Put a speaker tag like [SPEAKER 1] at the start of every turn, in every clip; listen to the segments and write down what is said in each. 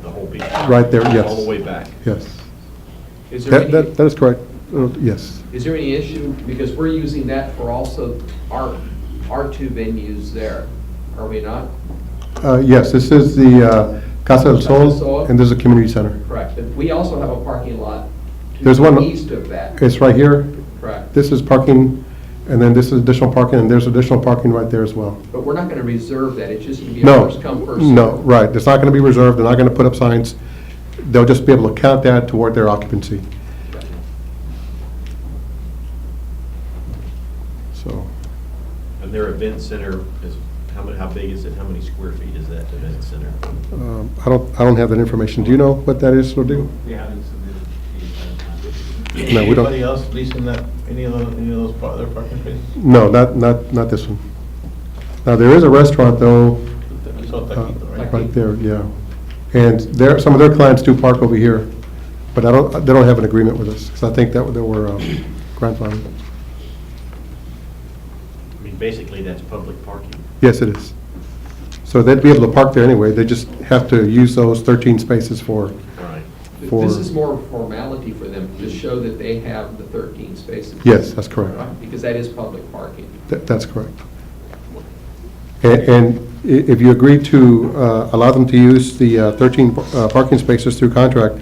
[SPEAKER 1] whole beach.
[SPEAKER 2] Right there, yes.
[SPEAKER 1] All the way back.
[SPEAKER 2] Yes.
[SPEAKER 1] Is there
[SPEAKER 2] That,
[SPEAKER 1] any-
[SPEAKER 2] that that is correct. Uh, Yes.
[SPEAKER 3] Is there any issue, because we're using that for also our, our two venues there, are we not?
[SPEAKER 2] Uh, Yes, this is the uh, Casa del
[SPEAKER 3] Casa del Sol.
[SPEAKER 2] Sol, and this is a community center.
[SPEAKER 3] Correct, but we also have a parking lot to
[SPEAKER 2] There's
[SPEAKER 3] the
[SPEAKER 2] one-
[SPEAKER 3] east of that,
[SPEAKER 2] It's right here.
[SPEAKER 3] correct?
[SPEAKER 2] This is parking, and then this is additional parking, and there's additional parking right there as well.
[SPEAKER 3] But we're not gonna reserve that, it's just gonna be a
[SPEAKER 2] No,
[SPEAKER 3] first come, first served.
[SPEAKER 2] no, right. It's not going to be reserved. They're not going to put up signs. They'll just be able to count that toward their occupancy. So,
[SPEAKER 1] And their event center is, how many, how big is it? How many square feet is that event center?
[SPEAKER 2] um, I don't, I don't have that information. Do you know what that is, Rodrigo?
[SPEAKER 4] We haven't submitted the
[SPEAKER 2] No, we don't.
[SPEAKER 5] Anybody else leasing that, any of those, any of those, par- their parking spaces?
[SPEAKER 2] No, not, not, not this one. Now, there is a restaurant though,
[SPEAKER 5] We saw
[SPEAKER 2] uh,
[SPEAKER 5] Taquito, right?
[SPEAKER 2] right there, yeah. And there, some of their clients do park over here, but I don't, they don't have an agreement with us, because I think that, they were um, grandfathered.
[SPEAKER 1] I mean, basically, that's public parking.
[SPEAKER 2] Yes, it is. So they'd be able to park there anyway, they just have to use those 13 spaces for,
[SPEAKER 1] Right.
[SPEAKER 2] for-
[SPEAKER 3] This is more of a formality for them, to show that they have the thirteen spaces.
[SPEAKER 2] yes, that's correct.
[SPEAKER 3] Right, Because that is public parking.
[SPEAKER 2] That- That's correct. A- And i- if you agree to uh, allow them to use the uh, 13 par- uh, parking spaces through contract,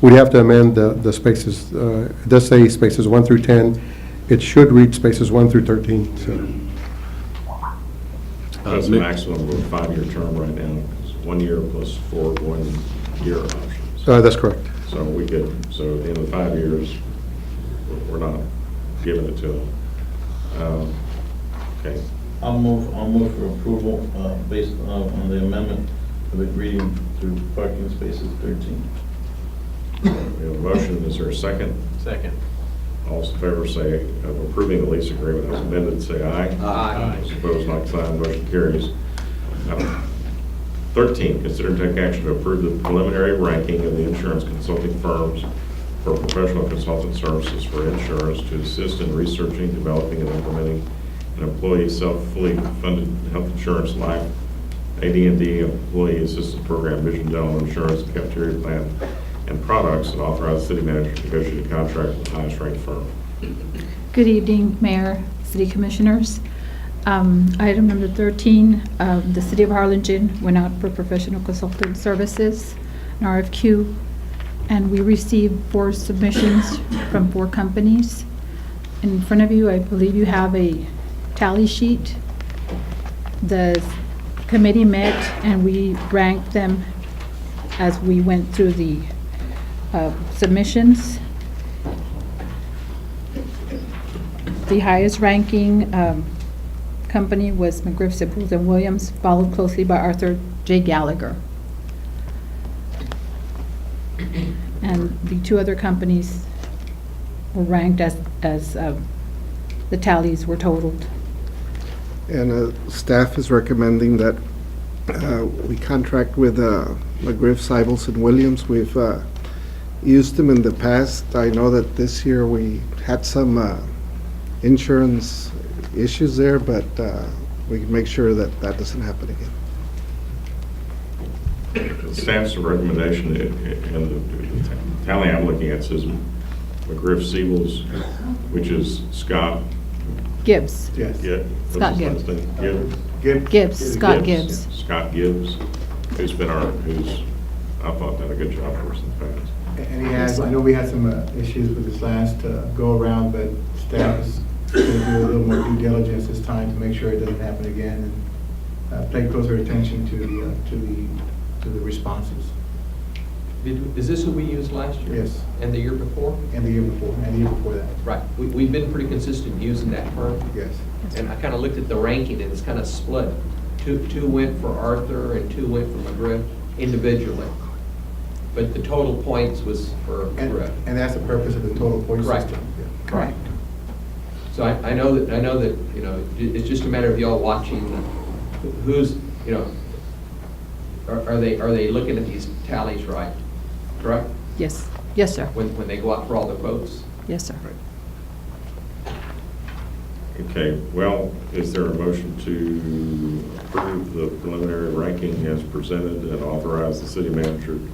[SPEAKER 2] we'd have to amend the the spaces. uh, It does say spaces 1 through 10. It should read spaces 1 through 13, so.
[SPEAKER 6] That's a maximum of a five-year term right now, It's one year plus four one-year options.
[SPEAKER 2] Uh, That's correct.
[SPEAKER 6] So we could, so in the five years, we're not giving it to them. Um, Okay,
[SPEAKER 5] I'll move, I'll move for approval, uh, based on, on the amendment of agreeing to parking spaces thirteen.
[SPEAKER 6] we have a motion, is there a second?
[SPEAKER 1] Second.
[SPEAKER 6] All those in favor say, of approving the lease agreement as amended, say aye.
[SPEAKER 3] Aye.
[SPEAKER 6] Those Opposed, like sign, motion carries. Item 13, consider and take action to approve the preliminary ranking of the insurance consulting firms for professional consultant services for insurance to assist in researching, developing, and implementing an employee self-fully funded health insurance life, AD&D employee assistance program, vision dental insurance, cafeteria plan, and products, and authorize city manager to negotiate a contract with the highest ranked firm.
[SPEAKER 7] Good evening, Mayor, City Commissioners. Um, Item number 13, uh, the City of Harlingen went out for professional consultant services, an RFQ, and we received four submissions from four companies. In front of you, I believe you have a tally sheet. The committee met and we ranked them as we went through the uh, submissions. The highest ranking um, company was McGriff, Sipples, and Williams, followed closely by Arthur J. Gallagher. And the two other companies were ranked as, as um, the tallies were totaled.
[SPEAKER 8] And uh, staff is recommending that uh, we contract with uh, McGriff, Sybils, and Williams. We've uh, used them in the past. I know that this year we had some uh, insurance issues there, but uh, we can make sure that that doesn't happen again.
[SPEAKER 6] Staff's recommendation, uh, and the tally I'm looking at says McGriff Siebel's, which is Scott.
[SPEAKER 7] Gibbs,
[SPEAKER 6] Gibb- what's
[SPEAKER 7] Scott
[SPEAKER 6] his
[SPEAKER 7] Gibb.
[SPEAKER 6] last name? Gibb?
[SPEAKER 7] Gibbs, Scott Gibbs.
[SPEAKER 6] Scott Gibbs, who's been our, who's, I thought done a good job for us in the past.
[SPEAKER 9] And he has, I know we had some uh, issues with this last uh, go-around, but staff is going to do a little more due diligence this time to make sure it doesn't happen again, and uh, pay closer attention to the, uh, to the, to the responses,
[SPEAKER 3] Did- Is this what we used last year?
[SPEAKER 9] Yes.
[SPEAKER 3] And the year before?
[SPEAKER 9] and the year before, and the year before that,
[SPEAKER 3] Right, we, we've been pretty consistent using that firm.
[SPEAKER 9] yes.
[SPEAKER 3] And I kind of looked at the ranking, and it's kind of split. Two, two went for Arthur and two went for McGriff individually. But the total points was for
[SPEAKER 9] And,
[SPEAKER 3] McGriff.
[SPEAKER 9] and that's the purpose of the total point
[SPEAKER 3] Right.
[SPEAKER 9] system. yeah.
[SPEAKER 7] Correct.
[SPEAKER 3] So I, I know that, I know that, you know, i- it's just a matter of y'all watching who's, you know, are are they, are they looking at these tallies right? Correct?
[SPEAKER 7] Yes, yes, sir.
[SPEAKER 3] When, when they go out for all the votes?
[SPEAKER 7] Yes, sir.
[SPEAKER 6] Okay, well, is there a motion to approve the preliminary ranking as presented and authorize the city manager